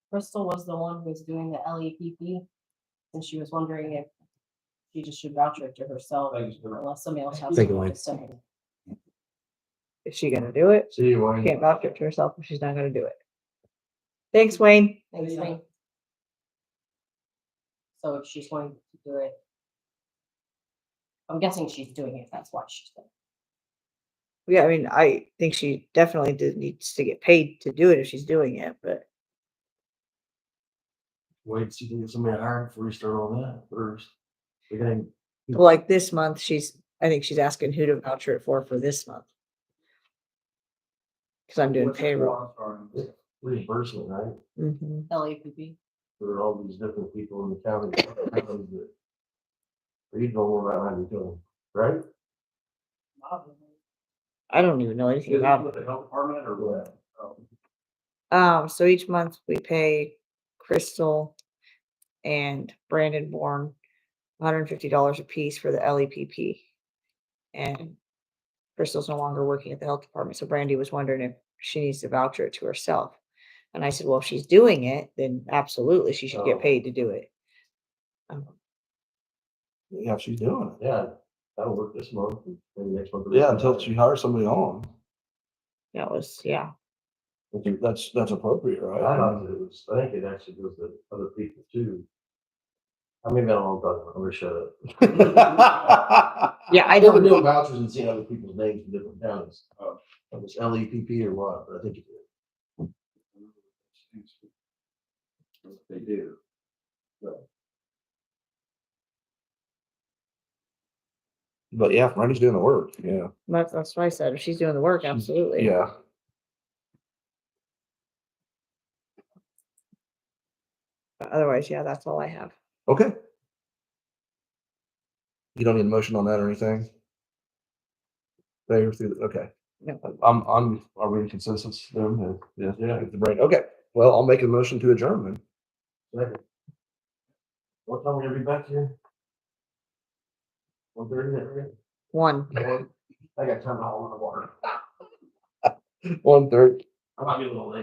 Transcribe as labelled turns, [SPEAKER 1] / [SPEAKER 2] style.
[SPEAKER 1] Crystal was the one who was doing the LEPP, and she was wondering if she just should voucher it to herself
[SPEAKER 2] Thanks, Darrell.
[SPEAKER 1] unless somebody else has.
[SPEAKER 3] Thank
[SPEAKER 1] something
[SPEAKER 3] you, Wayne.
[SPEAKER 1] to say.
[SPEAKER 4] Is she gonna do it?
[SPEAKER 2] See you, Wayne.
[SPEAKER 4] She Can't vouch it to herself if she's not gonna do it. Thanks, Wayne.
[SPEAKER 1] Thanks,
[SPEAKER 2] Yeah.
[SPEAKER 1] Wayne. So if she's wanting to do it. I'm guessing she's doing it, that's why she's doing
[SPEAKER 4] Yeah, I mean, I think she definitely did, needs to get paid to do it if she's doing it, but
[SPEAKER 2] Wait, till you get somebody hired before you start on that first. We gotta
[SPEAKER 4] well, like this month, she's, I think she's asking who to voucher it for, for this month. Cause I'm doing
[SPEAKER 2] What's the
[SPEAKER 4] payroll.
[SPEAKER 2] qualifier? Reimbursement, right,
[SPEAKER 4] Mhm.
[SPEAKER 1] it. LAPP,
[SPEAKER 2] for all these different people in the county. that comes with it. You don't worry about how you're doing, right?
[SPEAKER 4] I don't even know anything about it.
[SPEAKER 2] the health department or what?
[SPEAKER 4] Um, so each month we pay Crystal and Brandon Bourne hundred and fifty dollars a piece for the LEPP. And Crystal's no longer working at the health department, so Brandy was wondering if she needs to voucher it to herself. And I said, well, if she's doing it, then absolutely she should
[SPEAKER 2] Oh.
[SPEAKER 4] get paid to do it. Um,
[SPEAKER 5] Yeah, she's doing it.
[SPEAKER 2] Yeah, that'll work this month, maybe next month.
[SPEAKER 5] Yeah, until she hires somebody on.
[SPEAKER 4] That was, yeah,
[SPEAKER 5] I think That's, that's appropriate,
[SPEAKER 2] I thought
[SPEAKER 5] right?
[SPEAKER 2] that it was, I think it actually goes to other people too. I mean, I don't know, about it. I'm gonna shut up.
[SPEAKER 4] yeah, I
[SPEAKER 2] I've never
[SPEAKER 4] don't,
[SPEAKER 2] doing vouchers and seeing other people's names in different towns. Uh, It was L E P P or what, but I think it did. They do.
[SPEAKER 5] But yeah, Brandy's doing the work. Yeah,
[SPEAKER 4] that's, that's what I said, if she's doing the work, absolutely.
[SPEAKER 5] yeah.
[SPEAKER 4] Otherwise, yeah, that's all I have.
[SPEAKER 5] Okay. You don't need a motion on that or anything? They're through, okay.
[SPEAKER 4] No.
[SPEAKER 5] I'm, I'm, are we in consensus then? Yeah.
[SPEAKER 2] Yeah.
[SPEAKER 5] The brain, okay. Well, I'll make a motion to adjourn then.
[SPEAKER 2] Second. What time we gonna be back here? One thirty, right?
[SPEAKER 4] One.
[SPEAKER 2] I got time to haul in the water.
[SPEAKER 5] One third.
[SPEAKER 2] I might be a little late.